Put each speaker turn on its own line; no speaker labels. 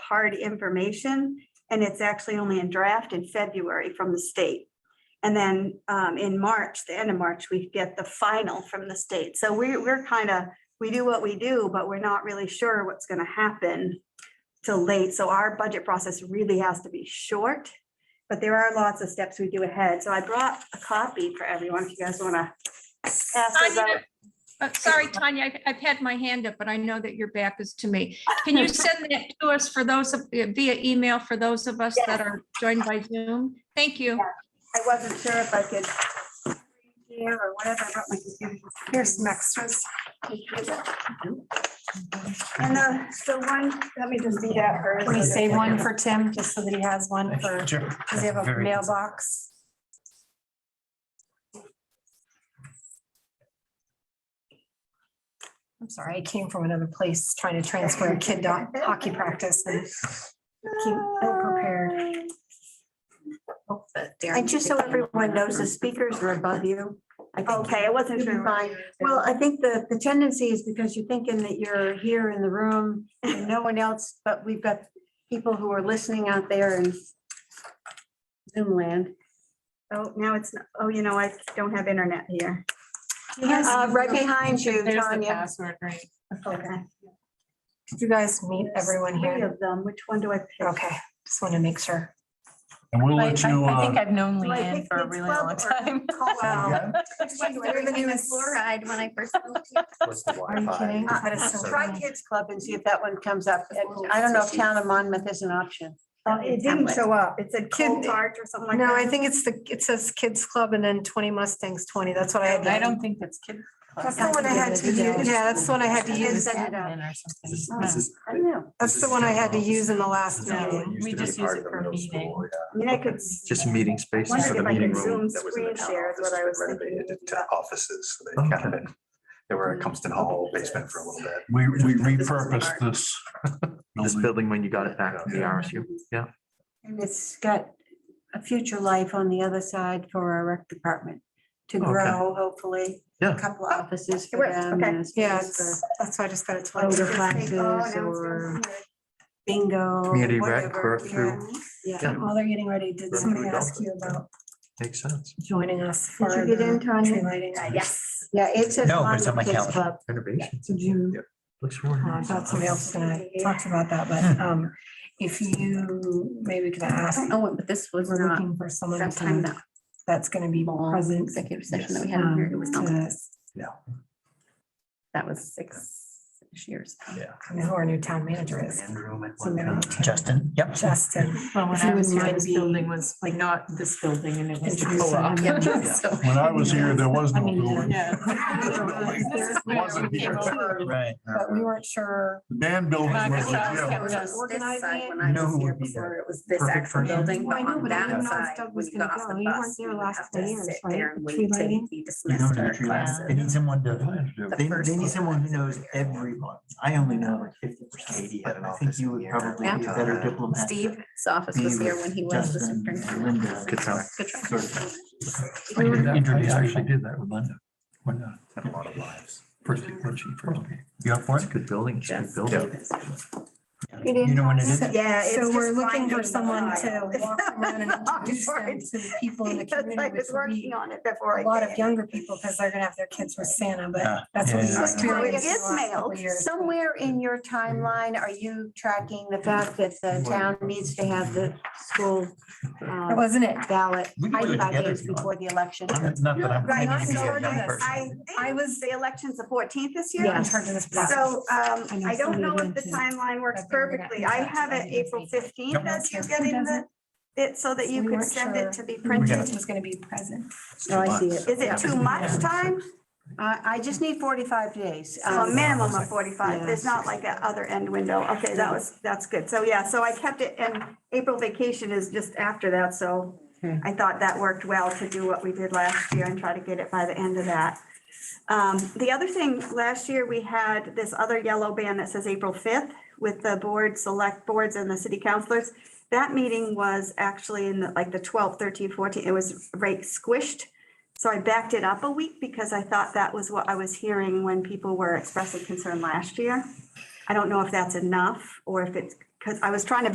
hard information, and it's actually only in draft in February from the state. And then um, in March, the end of March, we get the final from the state. So we, we're kind of, we do what we do, but we're not really sure what's going to happen till late. So our budget process really has to be short, but there are lots of steps we do ahead. So I brought a copy for everyone if you guys want to pass those out.
Tanya, uh, Sorry, Tanya, I've- I've had my hand up, but I know that your back is to me. Can you send that to us for those, of- uh, via email for those of us that
Yes.
are joined by Zoom? Thank you.
I wasn't sure if I could. Here or whatever, I brought my computer.
Here's some extras.
And the, the one, let me just be that first.
Can we save one for Tim, just so that he has one for, does
Sure.
he have a
Very-
mailbox? I'm sorry, I came from another place trying to transfer a kid to hockey practice and came ill prepared.
And just so everyone knows, the speakers are above you. I think
Okay, I wasn't
you'll be
sure.
fine. Well, I think the, the tendency is because you're thinking that you're here in the room and no one else, but we've got people who are listening out there in Zoom land.
Oh, now it's, not- oh, you know, I don't have internet here.
Uh, right behind you,
There's the
Tanya.
password, right?
Okay.
Did you guys meet everyone
Three
here?
of them. Which one do I pick?
Okay, just want to make sure.
And we'll
I
let you,
I think
uh,
I've known
do I
Leanne
pick
for a
Kids
really
Club
long
or
time.
Wow.
yeah,
Are you kidding?
Uh,
That is so
Try
funny.
Kids Club and see if that one comes up. And I don't know if Town of Monmouth is an option.
Oh, It didn't show up. It said
Kid-
cold charge or something like that.
No, I think it's the, it says Kids Club and then twenty Mustangs, twenty. That's what I had.
I don't think that's kid. club.
That's the one I had to use. Yeah, that's the one I had to
And
use.
set it up.
Admin or something.
This is-
No.
this is-
Oh, I don't know.
That's the one I had to use in the last
No.
meeting.
We just use it for meeting.
I mean, I could. s-
Just meeting spaces
Wondered
for the
if I could
meeting
Zoom
room.
that was in
screen
the town
share is
office
what I
that
was thinking.
Renovated to offices, so they kind of been, they were a
Mm.
Compton Hall basement for a little bit.
we, we repurposed this.
This building when you got it back from the RSU.
And it's got a future life on the other side for our rec department to
Okay.
grow, hopefully.
Yeah.
A couple of offices
It
for
works,
them.
okay.
and a space
Yeah,
for-
it's- that's why I just got it
Oh,
twice.
the
Just think, oh, now
classes
it's gonna
or
be here.
bingo.
Community rec
whatever,
or through-
Yeah.
Yeah.
While they're getting ready, did
Right,
somebody
we go.
ask you about
Makes sense.
joining us for
Did you get in,
the Uh, tree
Tanya?
lighting?
Yes.
Yeah, it says.
No, it's on my
Kids
calendar.
Club.
Renovations.
June.
Looks really
I
nice.
thought somebody else was gonna talk about that, but um, if you, maybe we could ask,
Oh, but this was
we're
not
looking for someone who
sometime
can-
that
that's gonna be
long
present.
executive session that we had in here. It
um,
was not,
to
that was six years. ago.
I mean, Who our new town manager is,
Justin, yep.
Justin.
Well, when
If you
I was
would
here,
mind
this
being-
building was like not this building and it was. the
Introducing
co-op.
him.
So-
When I was here, there was
I
no
mean,
building.
Yeah.
Wasn't here.
Right.
But we weren't sure.
The band building was a
Yeah,
gym.
It was this
Organizing
side
it.
when
You
I
know who
was here
would be the
before. It was this
perfect
actual
person?
building,
Well, I
but
know,
on
but I didn't
that
know if
side,
Doug was
when you
gonna
got off
go.
the
You
bus,
weren't there
you would
last
have
three
to
years,
sit
right?
there and
Tree
wait till
lighting?
you'd be
You
dismissed
know,
from your
the tree lights.
classes.
They need someone to,
The
they,
first
they need
one.
someone who knows everyone. I only know like fifty percent.
Katie had an
I think you would probably be a
uh,
better diplomat.
Steve's office was here when he was the
Justin, and
superintendent.
Linda.
Good job.
Good try.
I did that- I
Introduce
actually
yourself.
did that with Linda. When, uh,
Had A lot of lives.
first, when she first came.
You up for
It's a
it?
good building. It's a good building.
You
You
didn't
know when it
tell us.
is?
Yeah. it's
So we're
just
looking
finding
for
the
someone to
file.
walk around and introduce them to the people in the
Because I
community, which
was
would
working
be
on it before I.
a lot
did.
of younger people, because they're gonna have their kids with Santa,
Yeah.
but that's what we
Yeah, yeah, yeah.
Well, it
experienced in
is
the last couple
mailed,
years.
Somewhere in your timeline, are you tracking the fact that the town needs to have the school
That
uh,
wasn't it?
ballot
We can do it
45
together
days
if you want.
before the election?
I'm- Not that I'm.
Right,
claiming to
I'm
be a
sorry,
young
yes,
person.
I
I
think
was-
the election's the fourteenth this year.
In
Yes.
charge of this process.
So um, I don't know if the
Yeah.
timeline works
Okay, we got
perfectly. I have it
that.
April fifteenth
Yep.
as you're getting the, it so that you
We
could
weren't
send it to
sure.
be
We
printed.
got
Was gonna be present.
No, I see it.
Is it too much time?
I, I just need 45 days.
A
Um,
minimum of forty-five.
Yeah.
There's not like that other end window. Okay, that was, that's good. So yeah, so I kept it and April vacation is just after that, so
Okay.
I thought that worked well to do what we did last year and try to get it by the end of that. Um, the other thing, last year we had this other yellow band that says April fifth with the board, select boards and the city councilors. That meeting was actually in the- like the 12th, 13th, 14th, it was right squished. So I backed it up a week because I thought that was what I was hearing when people were expressing concern last year. I don't know if that's enough or if it because I was trying to